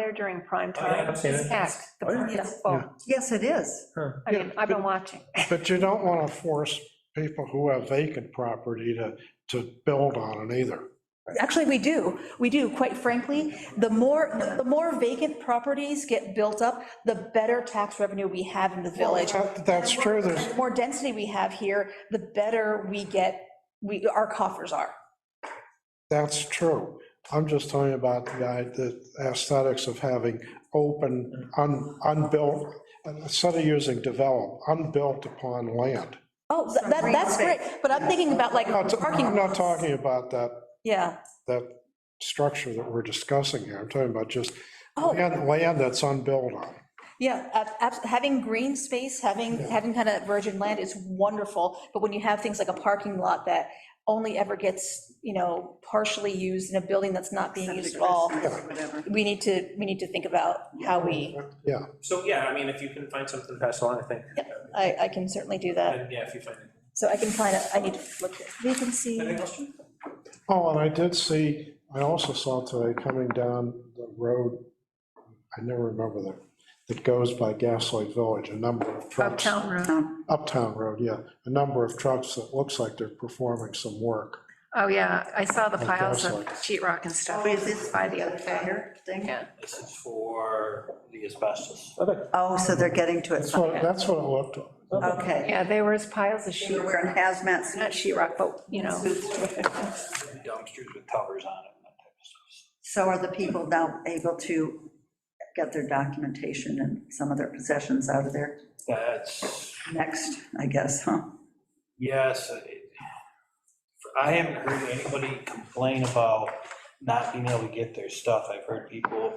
there during prime Oh, yeah, time. I've seen it. It's packed. The Oh, yeah. park is full. Yes, it is. Sure. I mean, I've been watching. But you don't want to force people who have vacant property to, to build on it either. Actually, we do, we do, quite frankly. The more, the more vacant properties get built up, the better tax revenue we have in the village. That- That's true, there's, The more density we have here, the better we get, we, our coffers are. that's true. I'm just talking about the, i- the aesthetics of having open, un- unbuilt, instead of using develop, unbuilt upon land. Oh, that, that- that's great, but I'm thinking about like I'm not- parking. I'm not lots. talking about that, Yeah, that structure that we're discussing here. I'm talking about just Oh. land, land that's unbuilt on. yeah, ab- abs- having green space, having, having kind of virgin land is wonderful, but when you have things like a parking lot that only ever gets, you know, partially used in a building that's not being used at all, Whatever. we need to, we need to think about how we, Yeah, So, yeah, I mean, if you can find something to pass along, I think, I, I can certainly do that. and yeah, if you find it. So I can find, a- I need to look at vacancy. Anything else, Jim? Oh, and I did see, I also saw today coming down the road, I never remember that, that goes by Gaslight Village, a number of trucks. Uptown Road. Uptown Road, yeah, a number of trucks that looks like they're performing some work. Oh, yeah, I saw the Like piles of gaslight. sheet rock and stuff. Oh, is this By the other day. fire thing? Yeah, This is for the asbestos. Oh, so they're getting to it. That's what, that's what it looked, Okay. yeah, there was piles of They sheet, were wearing hazmat not suits. sheet rock, but, you know. Dumpsters with covers on it and that type of stuff. So are the people now able to get their documentation and some of their possessions out of there That's, next, I guess, huh? yes, it- I haven't heard anybody complain about not being able to get their stuff. I've heard people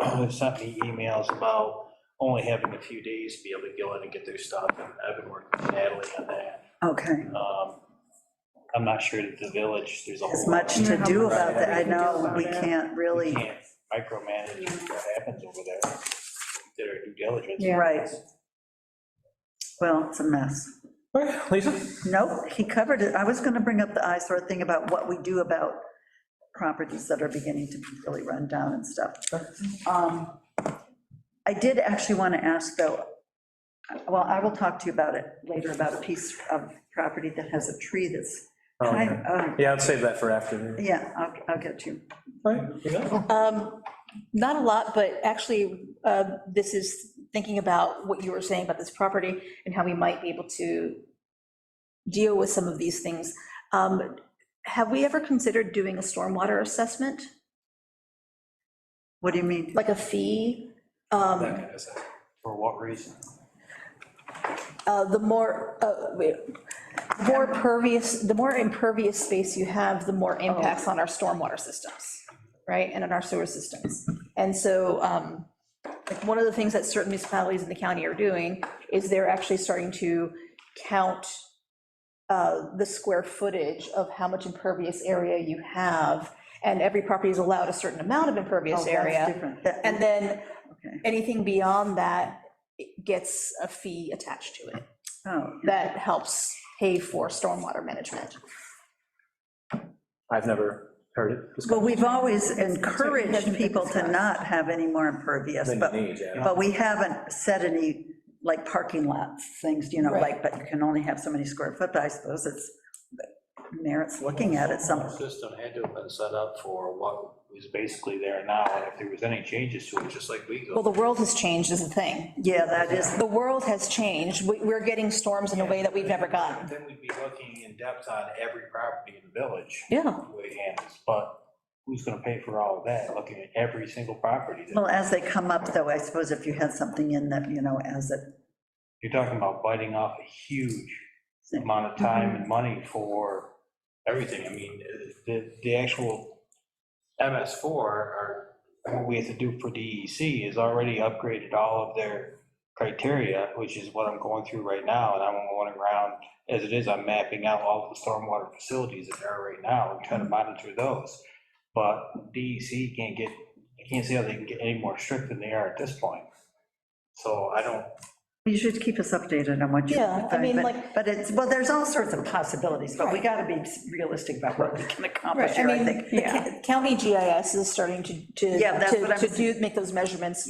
have sent me emails about only having a few days to be able to go in and get their stuff. And I've been working with Natalie on that. Okay. Um, I'm not sure that the village, there's a whole. There's much Yeah, to how do much about that. I we can do know, about we it. can't We really, can't micromanage what happens over there. Did our due diligence. Yeah. right. Well, it's a mess. Okay, Lisa? Nope, he covered it. I was going to bring up the eyesore thing about what we do about properties that are beginning to really run down and stuff. Um, I did actually want to ask, though, well, I will talk to you about it later, about a piece of property that has a tree that's, Oh, kind okay. of- oh, Yeah, I'd save that for after. yeah, I'll, I'll get to you. Right, you got it? Um, Not a lot, but actually, uh, this is thinking about what you were saying about this property and how we might be able to deal with some of these things. Um, Have we ever considered doing a stormwater assessment, What do you mean? like a fee? Um, That kind of stuff. For what reason? uh, The more, uh, wait, the more pervious, the more impervious space you have, the more Oh. impacts on our stormwater systems, right, and on our sewer systems. And so, um, like, one of the things that certain municipalities in the county are doing is they're actually starting to count uh, the square footage of how much impervious area you have, and every property is allowed a certain amount of Oh, impervious that's area. different. And That- then, Okay. anything beyond that gets a fee attached to it Oh, that helps pay for stormwater management. I've never heard it. discussed. Well, we've always encouraged people to not have any more impervious, Then but, you need, yeah. but we haven't said any, like, parking lots, things, you know, Right. like, but you can only have so many square foot, but I suppose it's merits looking at it some, System had to have been set up for what is basically there now, and if there was any changes to it, just like we Well, go. the world has changed is the thing. yeah, that is, The world has changed. We- We're getting storms in a way that we've never gotten. Then we'd be looking in depth on every property in the village. Yeah. the way it is, But who's gonna pay for all of that, looking at every single property? that- well, as they come up, though, I suppose if you had something in that, you know, as it, You're talking about biting off a huge amount of time and money for everything. I mean, the, the actual MS4 or what we have to do for DEC is already upgraded all of their criteria, which is what I'm going through right now. And I'm going around, as it is, I'm mapping out all the stormwater facilities that there are right now and trying to monitor those. But DEC can't get, I can't see how they can get any more strict than they are at this point. So I don't You should keep us updated on what you. Yeah, I mean, but- like- But it's, well, there's all sorts of possibilities, but we got to be realistic about what we can Right, accomplish I here, I mean, think. the ca- county GIS is starting to, to, Yeah, that's what to I'm- to do, make those measurements